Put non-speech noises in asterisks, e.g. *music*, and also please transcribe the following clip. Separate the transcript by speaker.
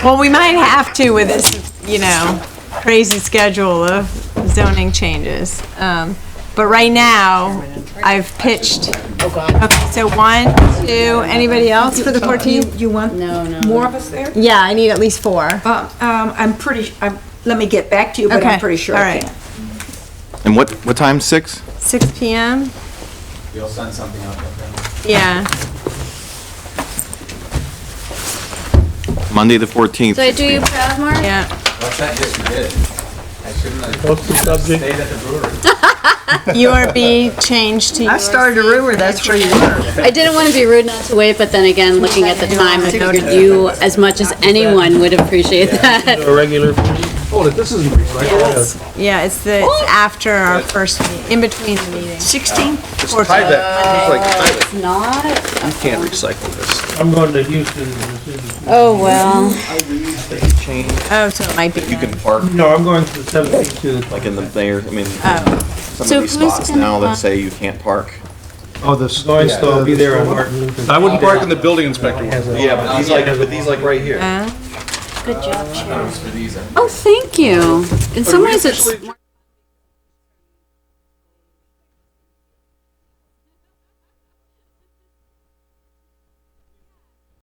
Speaker 1: Well, we might have to with this, you know, crazy schedule of zoning changes. Um, But right now, I've pitched,
Speaker 2: Oh, God.
Speaker 1: okay, so one, two, anybody else for the 14th?
Speaker 3: You want
Speaker 2: No, no.
Speaker 3: more of us there?
Speaker 1: Yeah, I need at least four.
Speaker 3: Uh, um, I'm pretty, I'm, let me get back to you, but
Speaker 1: Okay,
Speaker 3: I'm pretty sure
Speaker 1: all
Speaker 3: I
Speaker 1: right.
Speaker 3: can.
Speaker 4: And what, what time, 6?
Speaker 1: Six PM?
Speaker 5: You'll send something out, okay?
Speaker 1: Yeah.
Speaker 4: Monday, the 14th.
Speaker 2: Did I do you proud, Mark?
Speaker 1: Yeah,
Speaker 5: What's that? Yes, you did. I shouldn't have stayed at the brewery.
Speaker 1: URB changed
Speaker 3: *laughs*
Speaker 1: to.
Speaker 6: I started a rumor that's where you were.
Speaker 2: I didn't want to be rude not to wait, but then again, looking at the time, I figured you, as much as anyone, would appreciate that.
Speaker 7: a regular. Oh, this isn't regular.
Speaker 1: Yeah, it's the, it's after our first, meet- in between the meetings.
Speaker 6: 16?
Speaker 2: It's Not?
Speaker 8: You can't recycle this.
Speaker 7: I'm going to Houston. this
Speaker 2: Oh, well.
Speaker 1: Oh, so it might be.
Speaker 8: You
Speaker 1: then.
Speaker 8: can park
Speaker 7: is- No, I'm going to the 17th to the
Speaker 8: like in the there, I mean, some
Speaker 2: Oh. So
Speaker 8: of these
Speaker 2: who's
Speaker 8: spots
Speaker 2: gonna
Speaker 8: now
Speaker 2: park?
Speaker 8: that say you can't park.
Speaker 9: Oh, this.
Speaker 7: Going to still be there on Martin Luther.
Speaker 9: I wouldn't park in the building inspector one.
Speaker 8: Yeah, but these like, but these like right here.
Speaker 1: Huh?
Speaker 2: Good job, Sharon.
Speaker 5: For these, I
Speaker 2: Oh, thank you. In some ways, it's.